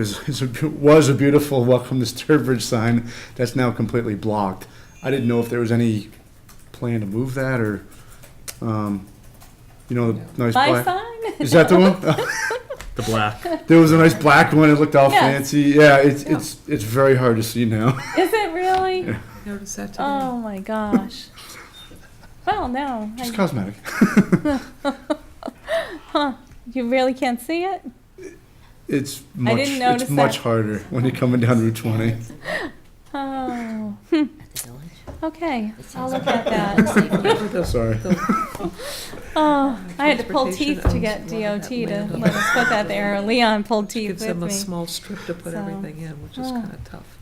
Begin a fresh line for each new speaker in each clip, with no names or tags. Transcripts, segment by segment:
is, is a, beau- was a beautiful welcome to Sturbridge sign that's now completely blocked. I didn't know if there was any plan to move that or, um, you know, the nice
My
black.
sign?
Is that the one?
The black.
There was a nice black one. It looked all
Yes.
fancy. Yeah, it's
Yeah.
it's it's very hard to see now.
Is it really?
Notice that today.
Oh my gosh. Well, no,
Just
I-
cosmetic.
you really can't see it?
It's much
didn't
it's
notice
much
that.
harder when you're coming down Route 20.
Oh,
At the village?
okay,
It
I'll
sounds
look
like-
at that.
Remember the-
Sorry.
the-
Oh, I had to pull
Transportation
teeth to
owns
get
a lot
DOT
of that
to
land.
let us put that there. Leon pulled teeth
Gives
with
them a
me.
small strip to put
So,
everything in, which is
oh.
kind of tough.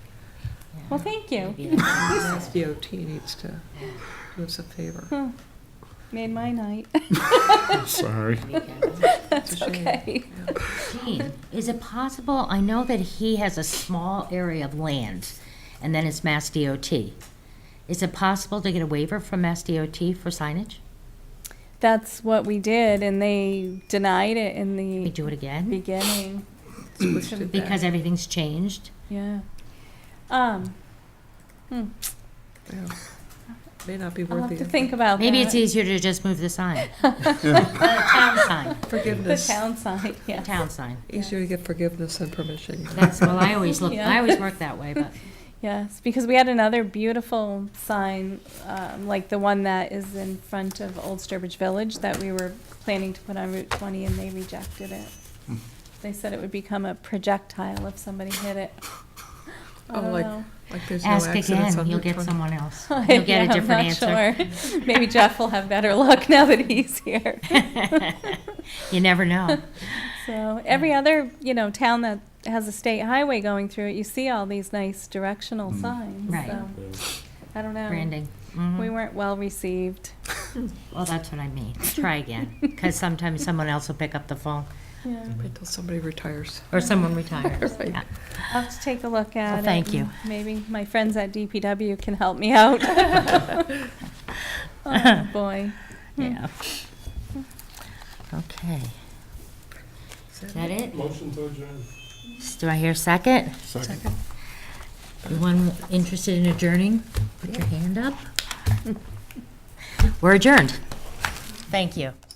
yeah.
Well, thank you.
Maybe
Mass
that's-
DOT needs to do us a favor.
Huh. Made my night.
Sorry.
It's a shame.
okay.
Yeah.
Gene, Is it possible, I know that he has a small area of land, and then it's Mass DOT. Is it possible to get a waiver from Mass DOT for signage?
That's what we did, and they denied it in
We
the
do it again?
beginning.
Switched it back.
Because everything's changed?
Yeah. Um, hmm,
Yeah. May not be
I'll
worth
have to
the
think
effort.
about that.
Maybe it's easier to just move the sign.
Yeah.
The town sign,
The
Forgiveness,
town side, yeah.
the town sign.
easier to get forgiveness than permission.
That's, well, I always look,
Yeah.
I always work that way, but
Yes, because we had another beautiful sign, um, like the one that is in front of Old Sturbridge Village that we were planning to put on Route 20 and they rejected it.
Hmm.
They said it would become a projectile if somebody hit it. I
Oh,
don't
like-
know.
Like there's no
ask
accidents
again,
on
you'll
Route
get
20.
someone else. You'll
Yeah,
get a
I'm
different
not
answer.
sure. Maybe Jeff will have better luck now that he's here.
You never know.
So every other, you know, town that has a state highway going through it, you see all these nice directional
Mm.
signs.
Right.
so, I don't know.
Branding.
We
Mhm.
weren't well received.
Well, that's what I mean. Try again, because sometimes someone else will pick up the phone
Yeah.
Wait till somebody retires.
or someone retires.
Right.
Yeah.
I'll have to take a look at it.
thank you.
and Maybe my friends at DPW can help me out. Oh, boy.
Yeah. Okay. Is that it?
Motion to adjourn.
Do I hear a second? Anyone interested in adjourning? Put your hand up. We're adjourned. Thank you.